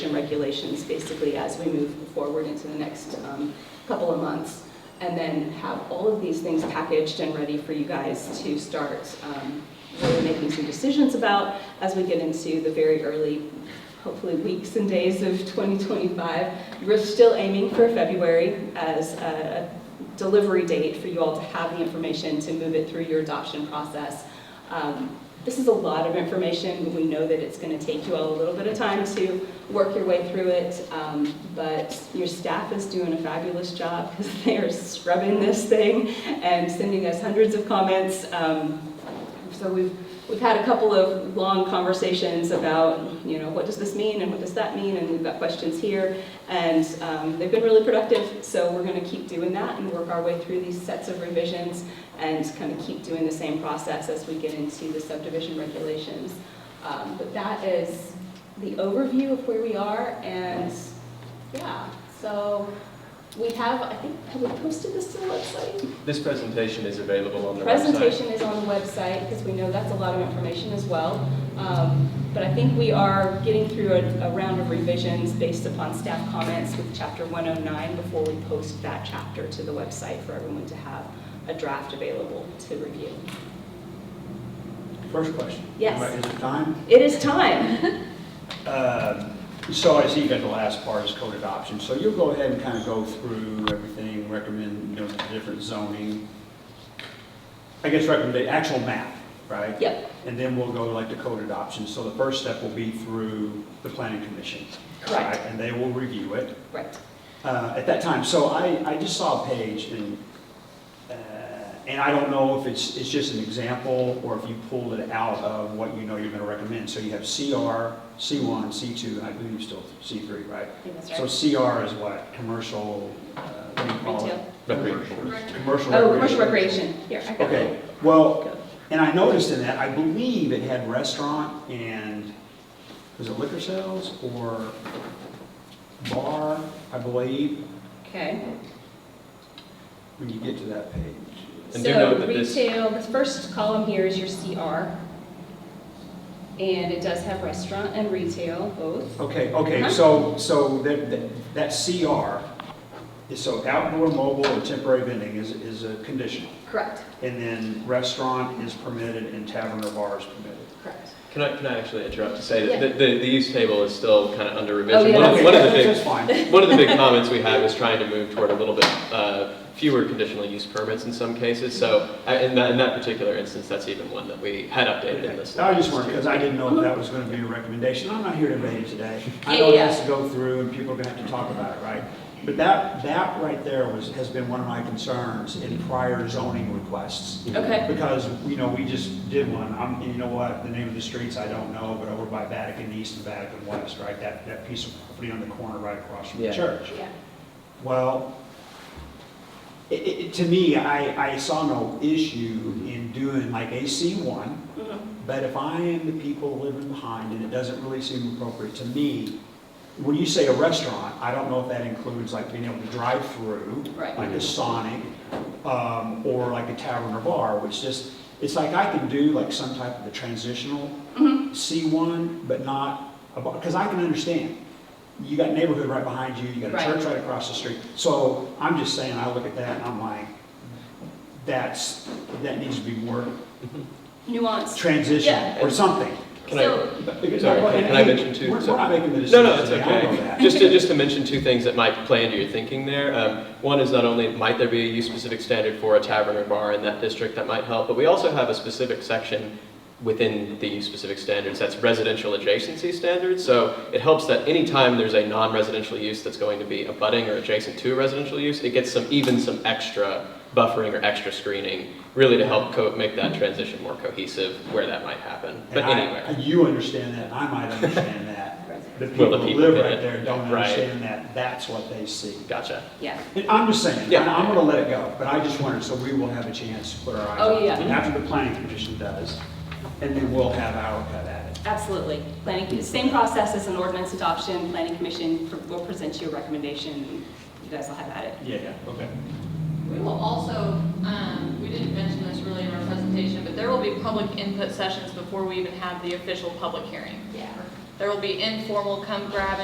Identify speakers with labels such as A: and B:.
A: regulations basically as we move forward into the next um, couple of months. And then have all of these things packaged and ready for you guys to start um, really making some decisions about as we get into the very early, hopefully weeks and days of 2025. We're still aiming for February as a a delivery date for you all to have the information to move it through your adoption process. Um, This is a lot of information, but we know that it's going to take you all a little bit of time to work your way through it. Um, But your staff is doing a fabulous job because they are scrubbing this thing and sending us hundreds of comments. Um, so we've, we've had a couple of long conversations about, you know, what does this mean and what does that mean? And we've got questions here. And um, they've been really productive, so we're going to keep doing that and work our way through these sets of revisions and kind of keep doing the same process as we get into the subdivision regulations. Um, But that is the overview of where we are and, yeah, so we have, I think, have we posted this to the website?
B: This presentation is available on the website.
A: Presentation is on the website, because we know that's a lot of information as well. Um, But I think we are getting through a a round of revisions based upon staff comments with Chapter 109 before we post that chapter to the website for everyone to have a draft available to review.
C: First question.
A: Yes.
C: Is it time?
A: It is time.
C: Um, So I see you got the last part is code adoption. So you'll go ahead and kind of go through everything, recommend, you know, the different zoning. I guess recommend the actual map, right?
A: Yep,
C: And then we'll go like to code adoption. So the first step will be through the planning commission.
A: Correct.
C: right? And they will review it.
A: right.
C: uh, at that time. So I, I just saw a page and, uh, and I don't know if it's, it's just an example or if you pulled it out of what you know you're gonna recommend. So you have CR, C1, C2, and I believe still C3,
A: I
C: right?
A: think that's
C: So
A: right.
C: CR is what, commercial, uh, what do you call it?
B: Recreation.
C: Commercial.
A: Oh, commercial recreation, here, I got it.
C: Okay, well,
A: Go.
C: and I noticed in that, I believe it had restaurant and, was it liquor sales or bar, I believe,
A: Okay.
C: when you get to that page.
B: And do note
A: So
B: that this-
A: retail, the first column here is your CR. And it does have restaurant and retail both.
C: Okay, okay,
A: Huh?
B: Uh-huh.
C: so, so that, that- that CR, is so outdoor mobile or temporary vending is, is a conditional.
A: Correct,
C: And then restaurant is permitted and tavern or bar is permitted.
A: correct.
B: Can I, can I actually interrupt to say
A: Yeah.
B: that the, the, the use table is still kind of under revision?
A: Oh, yeah,
B: One of-
C: Okay,
B: One of the
C: that's-
B: big,
C: That's fine.
B: one of the big comments we had was trying to move toward a little bit, uh, fewer conditional use permits in some cases. So, uh, in that, in that particular instance, that's even one that we had updated in this.
C: I
B: last
C: just wanted,
B: year.
C: because I didn't know if that was going to be a recommendation. I'm not here to debate it today. I
A: Yeah,
C: know it
A: yeah.
C: has to go through and people are going to have to talk about it, right? But that, that right there was, has been one of my concerns in prior zoning requests.
A: Okay,
C: Because, you know, we just did one, I'm, and you know what, the name of the streets, I don't know, but over by Vatican East and Vatican West, right? That, that piece of property on the corner right across from the
B: Yeah.
C: church.
A: yeah,
C: Well, it, it, to me, I, I saw no issue in doing like AC one,
A: mhm,
C: but if I am the people living behind and it doesn't really seem appropriate to me, when you say a restaurant, I don't know if that includes like being able to drive through,
A: Right.
C: like a Sonic, um, or like a tavern or bar, which just, it's like I can do like some type of a transitional
A: Mm-hmm.
C: C1, but not a bar, because I can understand. You got neighborhood right behind you, you got a
A: Right.
C: church right across the street. So I'm just saying, I look at that and I'm like, that's, that needs to be more
A: nuance.
C: transition
A: Yeah.
C: or something.
B: Can I-
A: So,
B: Sorry, can I mention 2
C: We're we're
B: sorry.
C: not making the
B: No,
C: decision.
B: no, it's
C: today, I know
B: okay.
C: that.
B: Just to, just to mention two things that might play into your thinking there. Um, One is not only might there be a use-specific standard for a tavern or bar in that district that might help, but we also have a specific section within the use-specific standards that's residential adjacency standards. So it helps that anytime there's a non-residential use that's going to be abutting or adjacent to a residential use, it gets some, even some extra buffering or extra screening, really to help co- make that transition more cohesive where that might happen, but
C: And I-
B: anywhere.
C: You understand that, and I might understand that. The people
B: Well, the
C: that
B: people
C: live
B: did
C: right
B: it.
C: there don't
B: Right.
C: understand that, that's what they see.
B: Gotcha.
A: Yeah,
C: And I'm just saying,
B: Yeah.
C: and I'm gonna let it go, but I just wondered, so we will have a chance to put our eyes
A: Oh,
C: on it.
A: yeah.
C: After the planning commission does, and then we'll have our cut at it.
A: absolutely. Planning, same process as an ordinance adoption, planning commission pr- will present you a recommendation, you guys will have at it.
C: Yeah, yeah, okay.
D: We will also, um, we didn't mention this really in our presentation, but there will be public input sessions before we even have the official public hearing.
A: Yeah.
D: There will be informal come grab